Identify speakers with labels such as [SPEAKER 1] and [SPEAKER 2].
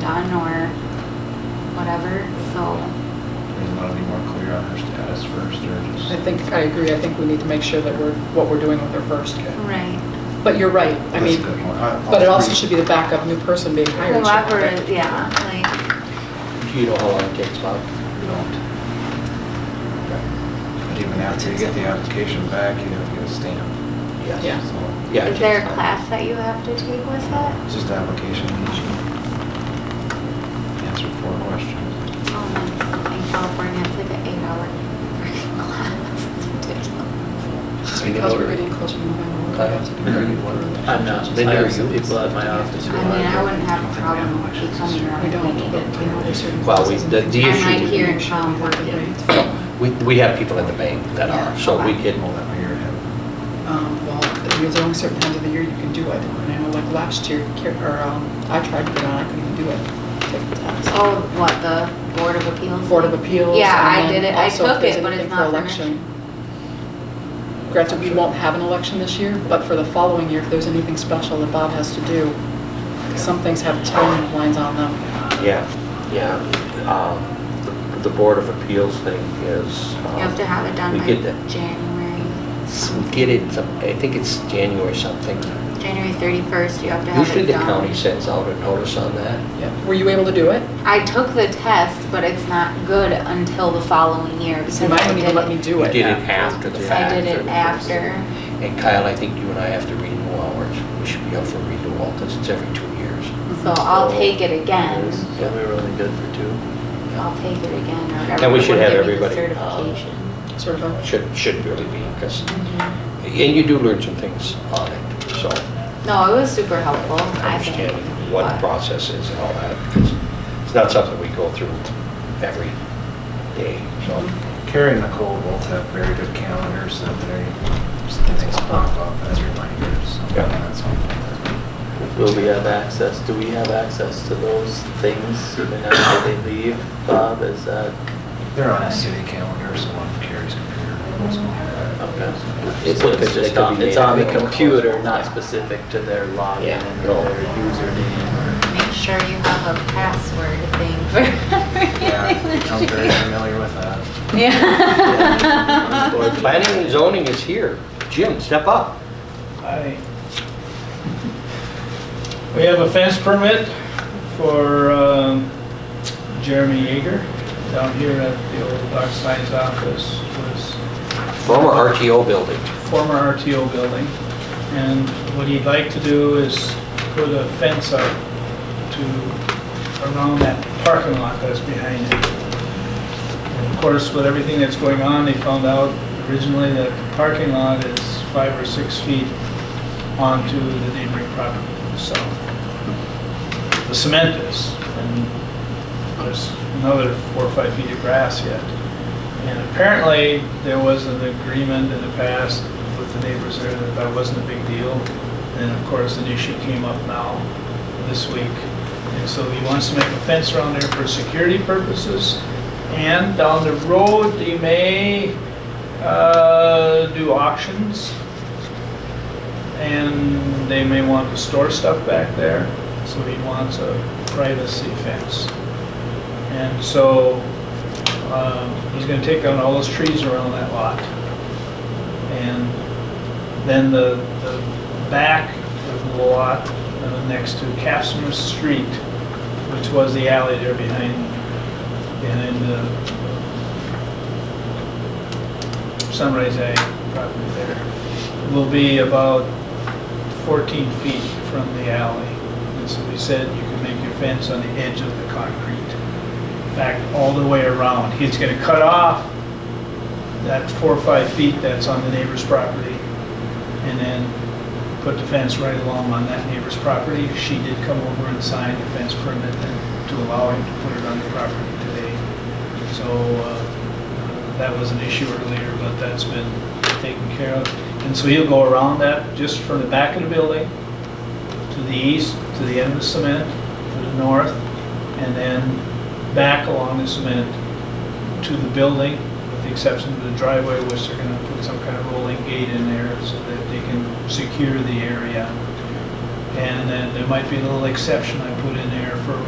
[SPEAKER 1] ton or whatever, so.
[SPEAKER 2] We want to be more clear on her status first, or
[SPEAKER 3] I
[SPEAKER 2] just,
[SPEAKER 3] think, I agree, I think we need to make sure that we're, what we're doing with her first.
[SPEAKER 1] Right.
[SPEAKER 3] But you're right, I
[SPEAKER 2] That's
[SPEAKER 3] mean,
[SPEAKER 2] a good point. I- I'll
[SPEAKER 3] but it also
[SPEAKER 2] agree.
[SPEAKER 3] should be the backup new person being hired. should have
[SPEAKER 1] Whoever,
[SPEAKER 3] that.
[SPEAKER 1] is- yeah, like,
[SPEAKER 4] Do you know how long it takes, Bob?
[SPEAKER 2] we don't. But even after you get the application back, you have to get a stamp,
[SPEAKER 4] Yes.
[SPEAKER 3] Yeah.
[SPEAKER 2] so
[SPEAKER 4] Yeah. it
[SPEAKER 1] is there a
[SPEAKER 4] takes time.
[SPEAKER 1] class that you have to take with it? Oh,
[SPEAKER 2] it's just an application. and she Answered four questions.
[SPEAKER 1] Oh, nice. In California, it's like an eight-hour freaking class, it's ridiculous.
[SPEAKER 3] Just
[SPEAKER 4] We can
[SPEAKER 3] because we're
[SPEAKER 4] order it.
[SPEAKER 3] getting closer to November. we
[SPEAKER 4] I
[SPEAKER 3] have to do
[SPEAKER 2] agree.
[SPEAKER 3] it.
[SPEAKER 5] I'm not, I have some people at my office
[SPEAKER 1] I
[SPEAKER 5] who
[SPEAKER 1] mean, I
[SPEAKER 5] are.
[SPEAKER 1] wouldn't have a problem with you coming around
[SPEAKER 3] We
[SPEAKER 1] if I
[SPEAKER 3] don't,
[SPEAKER 1] needed
[SPEAKER 3] but we know
[SPEAKER 1] to.
[SPEAKER 3] there's certain
[SPEAKER 4] Well, we-
[SPEAKER 3] classes and
[SPEAKER 4] the-
[SPEAKER 3] things
[SPEAKER 4] the
[SPEAKER 3] that
[SPEAKER 1] issue- I'm not here in
[SPEAKER 3] we should
[SPEAKER 1] town
[SPEAKER 3] be able to
[SPEAKER 1] working.
[SPEAKER 3] raise.
[SPEAKER 4] We, we have people at the bank that are, so we get,
[SPEAKER 2] Well, that way you're ahead.
[SPEAKER 3] Um, Well, there's only certain times of the year you can do it, and I know like last year, Kar- or um, I tried to get on, I couldn't even do it. Take the test.
[SPEAKER 1] Oh, what, the Board of Appeals?
[SPEAKER 3] Board of Appeals.
[SPEAKER 1] Yeah,
[SPEAKER 3] and
[SPEAKER 1] I
[SPEAKER 3] then
[SPEAKER 1] did it. I
[SPEAKER 3] also if
[SPEAKER 1] took
[SPEAKER 3] there's
[SPEAKER 1] it, but it's
[SPEAKER 3] anything for
[SPEAKER 1] not for
[SPEAKER 3] election. Greta, we won't have an election this year, but for the following year, if there's anything special that Bob has to do, 'cause some things have timelines on them.
[SPEAKER 4] yeah, yeah. Um, the- The Board of Appeals thing is. um,
[SPEAKER 1] You have to have it done
[SPEAKER 4] We
[SPEAKER 1] by
[SPEAKER 4] get that,
[SPEAKER 1] January.
[SPEAKER 4] we get it, some- I think it's January something.
[SPEAKER 1] January 31st, you have to have it done.
[SPEAKER 4] Usually the county sends out a notice on that.
[SPEAKER 3] Yeah. Were you able to do it?
[SPEAKER 1] I took the test, but it's not good until the following year because
[SPEAKER 3] So you might
[SPEAKER 1] I
[SPEAKER 3] not
[SPEAKER 1] did
[SPEAKER 3] even let me
[SPEAKER 1] it.
[SPEAKER 3] do
[SPEAKER 4] We
[SPEAKER 3] it.
[SPEAKER 4] did it after the fact.
[SPEAKER 1] I did it
[SPEAKER 4] 31st.
[SPEAKER 1] after.
[SPEAKER 4] And Kyle, I think you and I have to renew ours. We should be up for renewal because it's every two years.
[SPEAKER 1] So I'll take it again.
[SPEAKER 5] So we were only good for two.
[SPEAKER 1] I'll take it again or whatever.
[SPEAKER 4] And we
[SPEAKER 1] It
[SPEAKER 4] should
[SPEAKER 1] would
[SPEAKER 4] have
[SPEAKER 1] give me the
[SPEAKER 4] everybody, um,
[SPEAKER 1] Certification.
[SPEAKER 3] Sort of a-
[SPEAKER 4] Should, should really be because,
[SPEAKER 1] Mhm.
[SPEAKER 4] and you do learn some things on it, so.
[SPEAKER 1] No, it was super helpful,
[SPEAKER 4] I
[SPEAKER 1] I think.
[SPEAKER 4] understand what the
[SPEAKER 1] but-
[SPEAKER 4] process is and all that because it's not something we go through every day, so.
[SPEAKER 1] Mm-hmm.
[SPEAKER 2] Carrie and Nicole both have very good calendars, that they, things pop up as reminders, so
[SPEAKER 4] Yeah.
[SPEAKER 2] that's something.
[SPEAKER 5] Will we have access, do we have access to those things even after they leave, Bob, is that?
[SPEAKER 2] They're on a city calendar, so on Carrie's computer.
[SPEAKER 5] okay?
[SPEAKER 4] It's-
[SPEAKER 5] So
[SPEAKER 4] it's-
[SPEAKER 5] it's
[SPEAKER 4] it
[SPEAKER 5] just
[SPEAKER 4] could
[SPEAKER 5] on,
[SPEAKER 4] be
[SPEAKER 5] it's on the
[SPEAKER 4] made available.
[SPEAKER 5] computer, not specific to their login
[SPEAKER 4] Yeah.
[SPEAKER 5] and
[SPEAKER 4] No.
[SPEAKER 5] their username
[SPEAKER 1] Make sure you have a password thing for
[SPEAKER 2] Yeah, I'm very
[SPEAKER 1] everything.
[SPEAKER 2] familiar with that.
[SPEAKER 1] Yeah.
[SPEAKER 4] Well, planning and zoning is here. Jim, step up.
[SPEAKER 6] Hi. We have a fence permit for um, Jeremy Yeager down here at the old Doc Science office, was
[SPEAKER 4] Former RTO building.
[SPEAKER 6] former RTO building. And what he'd like to do is put a fence up to, around that parking lot that's behind it. And Of course, with everything that's going on, they found out originally that the parking lot is five or six feet onto the neighboring property, so. The cement is, and there's another four or five feet of grass yet. And apparently, there was an agreement in the past with the neighbors there that that wasn't a big deal. And of course, an issue came up now, this week. And so he wants to make a fence around there for security purposes. And down the road, they may uh, do auctions. And they may want to store stuff back there, so he wants a privacy fence. And so um, He's gonna take down all those trees around that lot. And then the, the back of the lot, uh, next to Capsmith Street, which was the alley there behind, behind the Sunrise Ag property there, will be about 14 feet from the alley. And so we said you can make your fence on the edge of the concrete back all the way around. He's gonna cut off that four or five feet that's on the neighbor's property, and then put the fence right along on that neighbor's property. She did come over and sign the fence permit to allow him to put it on the property today. So, uh, that was an issue earlier, but that's been taken care of. And so he'll go around that just from the back of the building to the east, to the end of the cement, to the north, and then back along the cement to the building, with the exception of the driveway, which they're gonna put some kind of rolling gate in there so that they can secure the area. And then there might be a little exception I put in there for